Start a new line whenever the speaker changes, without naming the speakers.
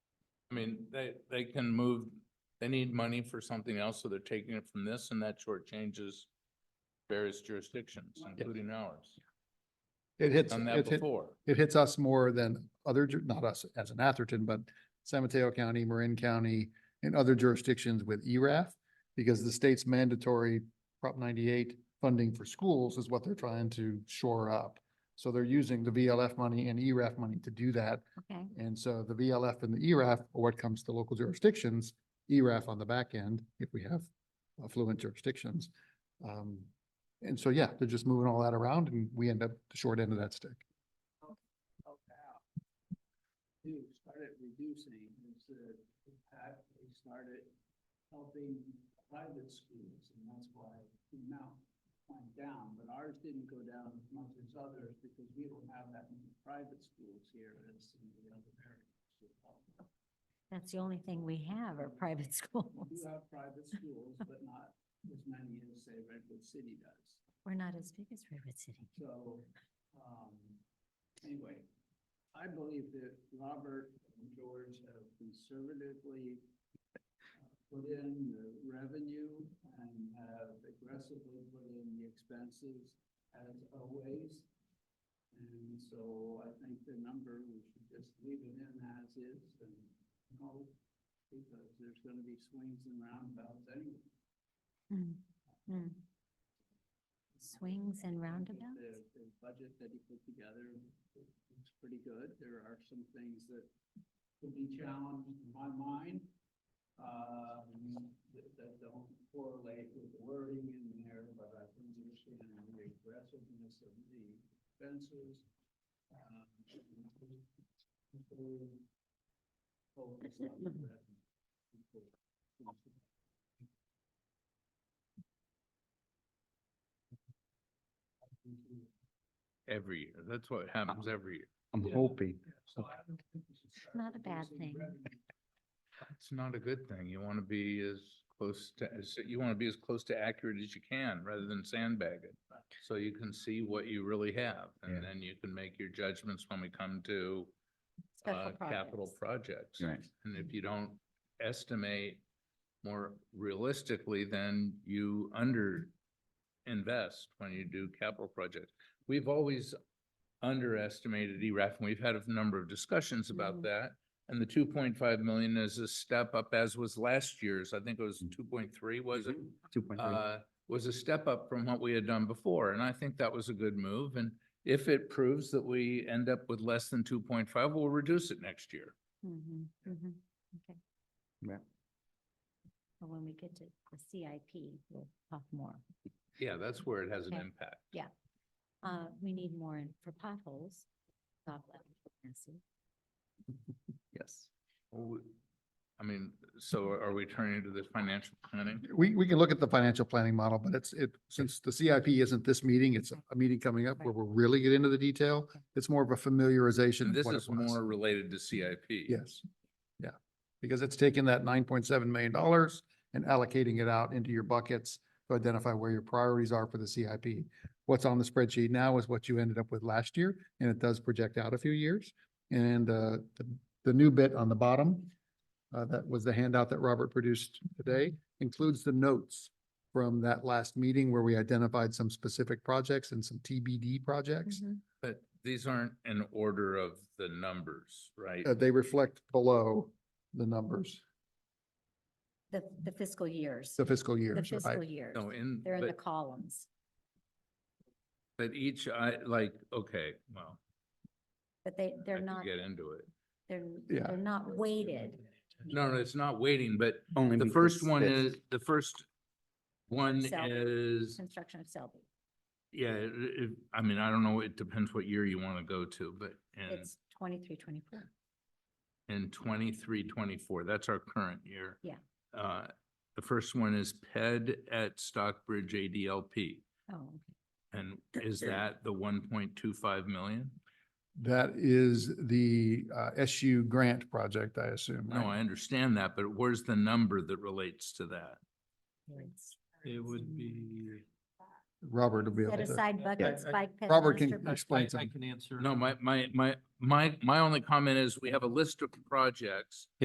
I mean, they, they can move, they need money for something else, so they're taking it from this and that shortchanges various jurisdictions, including ours.
It hits,
Done that
it hit-
before.
it hits us more than other, ju- not us as an Atherton, but San Mateo County, Marin County, and other jurisdictions with E ERAF, because the state's mandatory Prop ninety-eight funding for schools is what they're trying to shore up. So they're using the VLF money and E ERAF money to do that.
Okay,
And so the VLF and the E ERAF are what comes to local jurisdictions, E ERAF on the back end, if we have affluent jurisdictions. Um, And so, yeah, they're just moving all that around and we end up the short end of that stick.
help out. Who started reducing is the impact, they started helping private schools, and that's why the amount went down, but ours didn't go down as much as others, because we don't have that many private schools here as in the other areas.
that's the only thing we have are private
We do
schools.
have private schools, but not as many as, say, Redwood City does.
We're not as big as Redwood City.
So, um, anyway, I believe that Robert and George have conservatively uh, put in the revenue and have aggressively put in the expenses as always. And so I think the number, we should just leave it in as is and hope, because there's gonna be swings and roundabouts anyway.
Mm, mm. Swings and
I think
roundabouts?
The, the budget that he put together is pretty good. There are some things that could be challenged in my mind. Um, that, that don't correlate with the wording in there, but I can understand the aggressiveness of the fences. Um, people Focus on the revenue. People-
Every year. That's what happens every year.
I'm
Yeah.
hoping.
So I don't think we should start
Not a bad
reducing
thing.
revenue.
It's not a good thing. You want to be as close to, as- you want to be as close to accurate as you can rather than sandbag it. So you can see what you really have and
Yeah.
then you can make your judgments when we come to
Special
uh, capital
projects.
projects.
Right.
And if you don't estimate more realistically, then you under invest when you do capital projects. We've always underestimated E ERAF and we've had a number of discussions
Mhm.
about that. And the two point five million is a step up as was last year's. I think it was two point three, was it?
Two point
Mm-hmm.
three.
uh, was a step up from what we had done before, and I think that was a good move. And if it proves that we end up with less than two point five, we'll reduce it next year.
Mhm, mhm, okay.
Yeah.
But when we get to the CIP, we'll talk more.
Yeah, that's where it has an
Okay.
impact.
Uh, we need more in- for potholes. Stop laughing, Nancy.
Yes.
Well, we- I mean, so are we turning to this financial planning?
We, we can look at the financial planning model, but it's, it, since the CIP isn't this meeting, it's a meeting coming up where we'll really get into the detail. It's more of a familiarization.
And
of
this
what it
is
was.
more related to CIP.
Yes, yeah, because it's taking that nine point seven million dollars and allocating it out into your buckets to identify where your priorities are for the CIP. What's on the spreadsheet now is what you ended up with last year, and it does project out a few years. And uh, the, the new bit on the bottom, uh, that was the handout that Robert produced today, includes the notes from that last meeting where we identified some specific projects and some TBD projects.
Mhm.
But these aren't in order of the numbers, right?
Uh, They reflect below the numbers,
The, the fiscal years,
the fiscal
the
years, right?
fiscal years.
No, in,
They're in the
but,
columns,
but each, I, like, okay, well,
but they,
I
they're
could
not,
get into it.
they're,
Yeah.
they're not weighted.
No, no, it's not waiting, but
Only.
The
because
first one
this-
is, the first one
Selby.
is,
Construction of Selby.
yeah, it- it- I mean, I don't know, it depends what year you want to go to, but in,
It's twenty-three, twenty-four.
in twenty-three, twenty-four, that's our current year.
Yeah.
Uh, the first one is PED at Stockbridge ADLP.
Oh, okay.
And is that the one point two five million?
That is the uh, SU grant project, I assume,
No,
right?
I understand that, but where's the number that relates to that?
It's-
It would be.
Robert will be able
Set
to.
aside buckets,
I-
bike paths.
Robert can
master buckets.
explain
I
some.
can answer.
No, my, my, my, my, my only comment is we have a list of projects